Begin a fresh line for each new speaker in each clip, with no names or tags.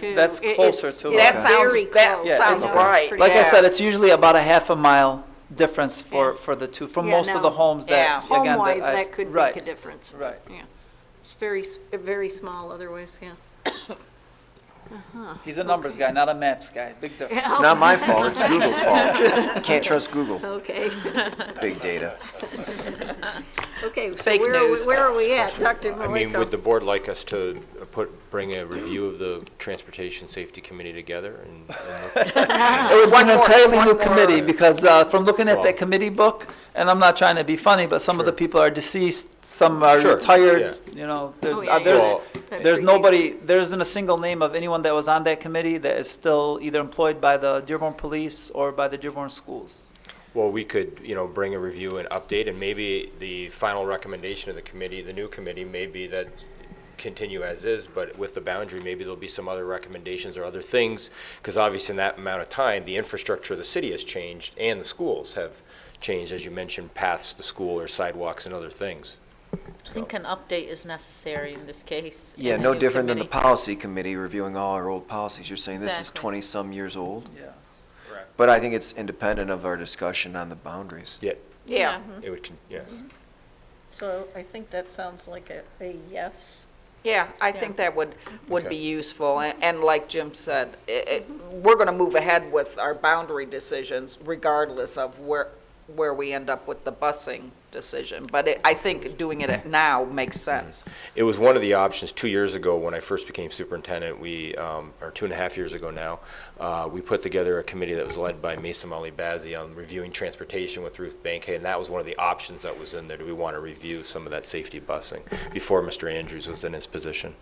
That's, that's
It-
closer
it's-
to it.
That
That's
Okay.
sounds,
Very
that
close.
Yeah,
sounds
it's-
right.
Like I
yeah.
said, it's usually about a half a mile difference for,
Yeah.
for the two, for
Yeah,
most of the
no.
homes
Yeah.
that, again.
Home-wise,
I-
that could
right,
make a difference.
Right.
Yeah. It's very, s- very small otherwise, yeah.
He's a numbers guy, not a maps guy. Big difference.
It's not my fault, it's Google's fault. Can't trust Google,
Okay,
big data.
okay, so
Fake
where are we,
news.
where are we at, Dr.
I mean, would the
Maliko?
board like us to uh, put, bring a review of the Transportation Safety Committee together and- and look
It would be an
more-
entirely new
one more-
committee because uh, from looking at that
Well-
committee book, and I'm not trying to be funny, but some of the
Sure.
people are deceased, some are
Sure,
retired,
yeah.
you know, there-
Oh,
uh,
yeah, yeah,
there's,
Well-
that
there's
predates-
nobody, there isn't a single name of anyone that was on that committee that is still either employed by the Dearborn Police or by the Dearborn Schools.
Well, we could, you know, bring a review and update, and maybe the final recommendation of the committee, the new committee, may be that continue as is, but with the boundary, maybe there'll be some other recommendations or other things, because obviously in that amount of time, the infrastructure of the city has changed, and the schools have changed, as you mentioned, paths to school or sidewalks and other things.
I think an update is necessary in this case.
Yeah,
and a
no
new
different than the
committee.
policy committee reviewing all our old policies. You're saying this is
Exactly.
twenty-some years old?
Yeah.
But I think it's independent of our discussion on the boundaries.
Yeah,
Yeah,
Mm-hmm.
it would, con- yes.
So I think that sounds like a, a yes.
yeah, I think that would, would be
Okay.
useful. And and like Jim said, i it, we're going to move ahead with our boundary decisions regardless of where, where we end up with the busing decision. But it- I think doing it now makes sense.
It was one of the options two years ago when I first became superintendent. We, um, or two and a half years ago now, uh, we put together a committee that was led by Mesa Ali Bazey on reviewing transportation with Ruth Bankhead, and that was one of the options that was in there. Do we want to review some of that safety busing before Mr. Andrews was in his position?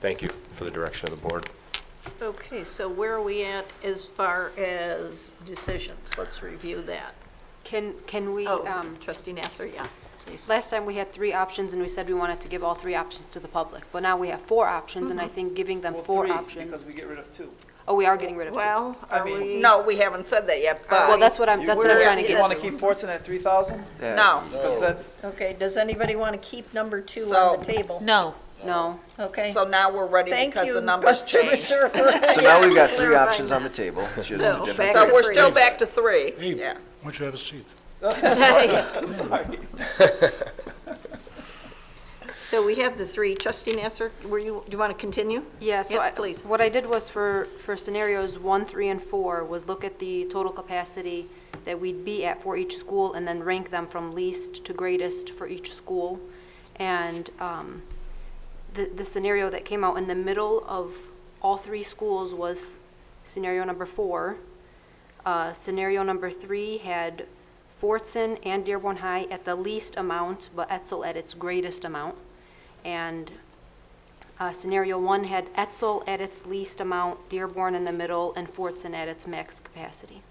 Thank you for the direction of the board.
Okay, so where are we at as far as decisions? Let's review that.
Can, can we,
Oh,
um,
trustee Nasser, yeah. please.
last time we had three options, and we said we wanted to give all three options to the public, but now we have four options, and I think giving them four options.
we get rid of two.
Oh, we are getting rid of two. Well,
Well, are
mean-
we?
No, we haven't said that yet, but.
that's what I'm, that's what I'm trying to
You
get
want
at.
to keep Fortson at three thousand?
No.
Because that's,
Okay, does anybody want to keep number two
So-
on the table?
No,
No.
Okay.
So now we're ready
Thank
because
you,
the numbers
Mr.
changed.
Reserve, for-
So now we've got
Yeah,
three
clarifying
options on the
that.
table, it's just a
No,
different.
back
So
to
we're
three.
still back to three,
Hey,
yeah.
why don't you have a seat?
sorry.
So we have the three. Trustee Nasser, were you, do you want to continue?
Yeah, so
Yes,
I-
please.
what I did was for, for scenarios one, three, and four, was look at the total capacity that we'd be at for each school, and then rank them from least to greatest for each school. And um, the, the scenario that came out in the middle of all three schools was scenario number four. Uh, Scenario number three had Fortson and Dearborn High at the least amount, but Etzel at its greatest amount. And uh, Scenario one had Etzel at its least amount, Dearborn in the middle, and Fortson at its max capacity.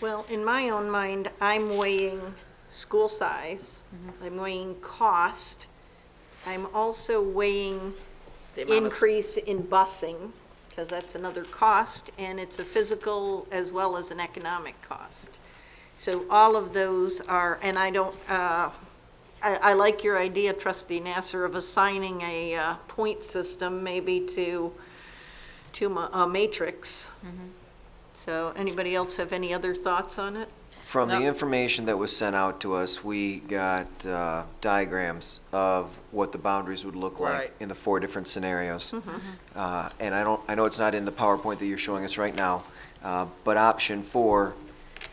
Well, in my own mind, I'm weighing school size,
Mm-hmm.
I'm weighing cost, I'm also weighing
The amount of-
increase in busing, because that's another cost, and it's a physical as well as an economic cost. So all of those are, and I don't, uh, I, I like your idea, trustee Nasser, of assigning a uh, point system maybe to, to ma- a matrix.
Mm.
So anybody else have any other thoughts on it?
From the information that was sent out to us, we got uh, diagrams of what the boundaries would look
Right. Mm-hmm,
like in the four different scenarios. Uh, And I don't, I know it's not in the PowerPoint that you're showing us right now, uh, but option four,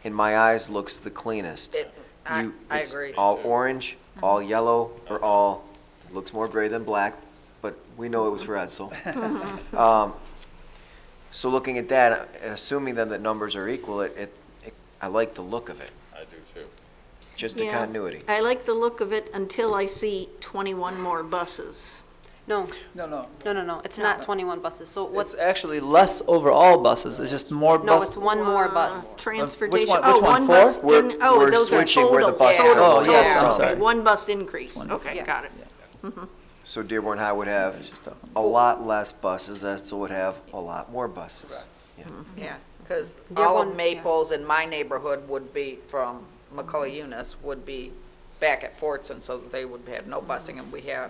in my eyes, looks the cleanest.
It- I-
You-
I
it's
agree. Mm-hmm.
All orange, all yellow, or all, looks more gray than black, but we know it was for Edsel. Um, So looking at that, assuming then that numbers are equal, it, it, it- I like the look of it. I do too. Just a
Yeah.
continuity.
I like the look of it until I see 21 more buses.
No,
No, no.
no, no, no, it's not 21 buses, so
It's
what's,
actually less overall buses, it's just more
no,
buses.
it's one more bus.
Uh, Transportation,
one-
oh,
Uh, which one,
one bus,
four? Oh,
in-
We're-
oh, those are
we're
totals.
switching where the buses
are
totals,
going. Yeah.
totals.
I'm sorry.
Okay, One bus increase,
One.
okay,
Yeah.
got it.
So Dearborn High would have
It's just a-
a lot less buses, Edsel would have a lot more buses. Yeah.
Yeah, because
They're
all of
one- yeah.
Maples in my neighborhood would be, from McCullough Eunice, would be back at Fortson, so they would have no busing, and we had